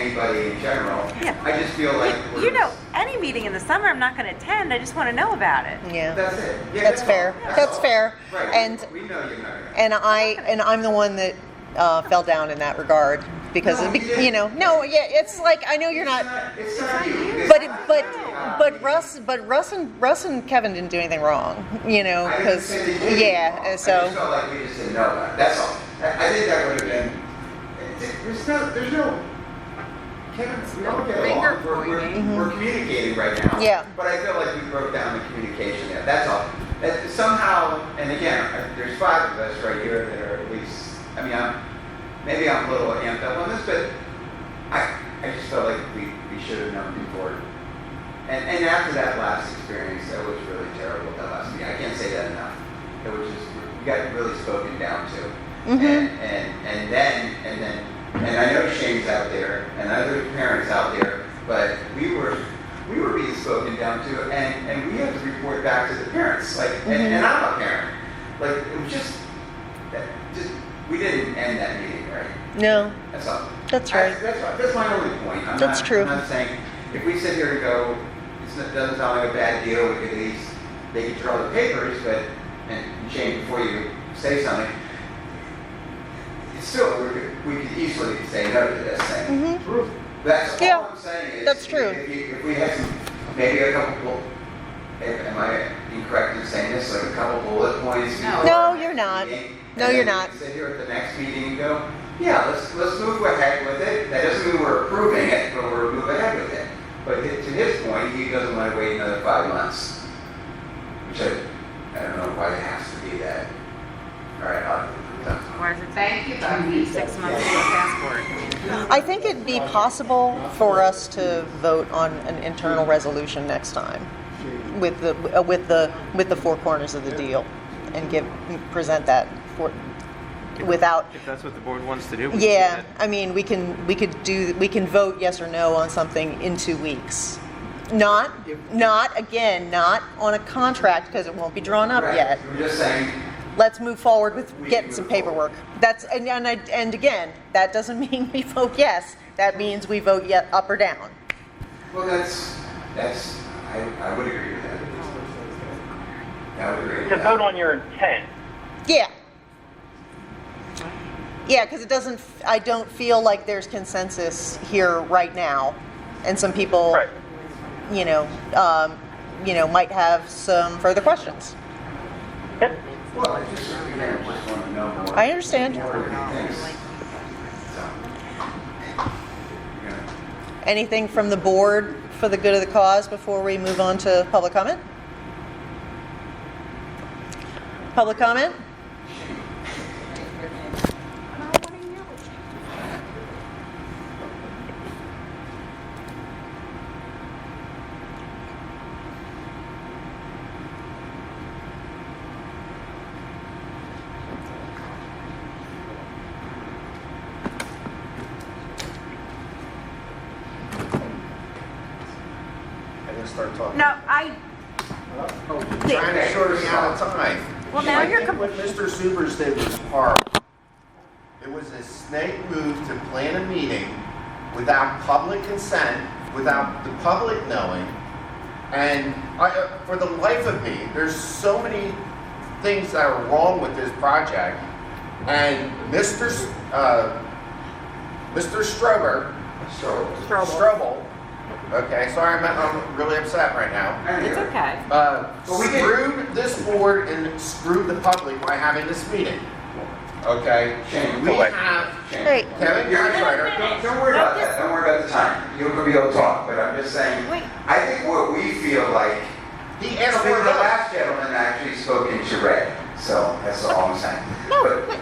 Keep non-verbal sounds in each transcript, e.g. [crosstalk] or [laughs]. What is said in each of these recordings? anybody in general. Yeah. I just feel like we're. You know, any meeting in the summer, I'm not going to attend. I just want to know about it. Yeah, That's it. Yeah, that's all. fair. That's all. fair. Right. And We know you're not. gonna- and I and I'm the one that uh, fell down in that regard because No, it be- you didn't. you know no yeah it's like I know you're It's not not, it's not you. It's but not but you. Uh, but Russ but Russ and Russ and Kevin didn't do anything wrong you know I didn't because say they did yeah anything wrong. and I just so felt like we just didn't know about it. That's all. I, I think that would have been. There's no. There's no. Kevin's we don't get Finger along. We're, we're, pointing. we're communicating right now. Mm-hmm. Yeah. But I feel like we broke down the communication there. That's all. That somehow, and again, I- there's five of us right here that are at least. I mean, I'm maybe I'm a little amped up on this, but I, I just felt like we, we should have known before. And, and after that last experience, that was really terrible, that last meeting. I can't say that enough. It was just, we got really spoken down to. Mhm. And, and, and then, and then, and I know Shane's out there and other parents out there, but we were, we were being spoken down to and, and we had to report back to the parents. Like, and, and I'm a parent. Like, it was just, that, just, we didn't end that meeting, right? no That's all. That's right. I- that's, right. that's my only point. I'm That's not, true. I'm not saying if we sit here and go, it's, it doesn't sound like a bad deal. We could at least they could draw the papers, but and Shane, before you say something, it's still we could, we could easily say no to this thing. Mm-hmm. That's Yeah, all I'm saying. Is that's true. If, you, if we had some, maybe a couple. bull- If, am I incorrect in saying this? Like a couple bullet points. No. before No, our you're next not. meeting, No, and then we you're not. can Sit here at the next meeting and go, yeah, let's let's move ahead with it. That doesn't mean we're approving it, but we're moving ahead with it. But hi- to his point, he doesn't want to wait another five months, which I, I don't know why it has to be that. All right, I'll, done. Or is it Thank you, Bucky. six months to a passport? I think it'd be possible for us to vote on an internal resolution next time with the uh, with the with the four corners of the deal and give present that for without If that's what the board wants to do. we can do yeah that. I mean we can we could do we can vote yes or no on something in 2 weeks not not again not on a contract because it won't be drawn up Right. yet We're just saying, let's move forward with We can getting move some paperwork. That's, and, and, I- and again, that doesn't [laughs] mean we vote yes, that means we vote yet up or down. well, that's that's I, I would agree with that. I would agree. with To that. vote on your intent. Yeah. Yeah, because it doesn't, I don't feel like there's consensus here right now. And some people, Right. you know, um, you know, might have some further questions. Yep. Well, I just, again, I just want to know more. I understand. More of these things. So, yeah. Anything from the board for the good of the cause before we move on to public comment? Public comment? I didn't start talking. No, I. Oh, you're trying to short me out of time. Well, now I you're think com- What Mr. Supers did was horrible. It was a snake move to plan a meeting without public consent, without the public knowing. And I, uh, for the life of me, there's so many things that are wrong with this project. And Mr. S- uh, Mr. Strober, So, Trouble. Strobel, okay, sorry, I'm, I'm really upset right now It's okay. uh, But we did- screwed this board and screwed the public by having this meeting. Okay? Shane, We we- have Shane, Hey. Kevin You're- Gottschalker. Don't, don't worry about that. Don't worry about the time. You're gonna be able to talk, but I'm just saying, Wait. I think what we feel like, He and asked the for the last last. gentleman actually spoke in charade, so that's all I'm saying. No, But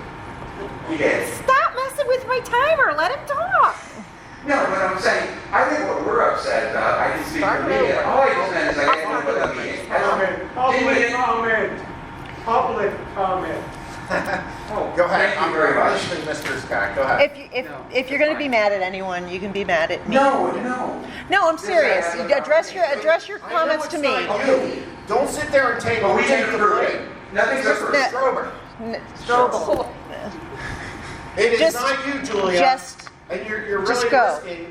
He did. Stop messing with my timer. Let him talk. No, but I'm saying, I think what we're upset about, I can speak for me, and all I just meant is I had one with a meeting. I Comment, don't, didn't public mean- comment, public comment. [laughs] Go Oh, Thank ahead, you I'm very much. listening, Mr. Scott, go ahead. If you, if, if you're going to be mad at anyone, you can be mad at me. No, no. No, I'm This serious. is- Address your address your I know comments to it's me. not you. Don't sit there and take, But we take didn't the approve it. blame. Nothing's Mr. approved. That- Strober, N- it is Just- not you, Julia. just- And you're, you're just really go. risking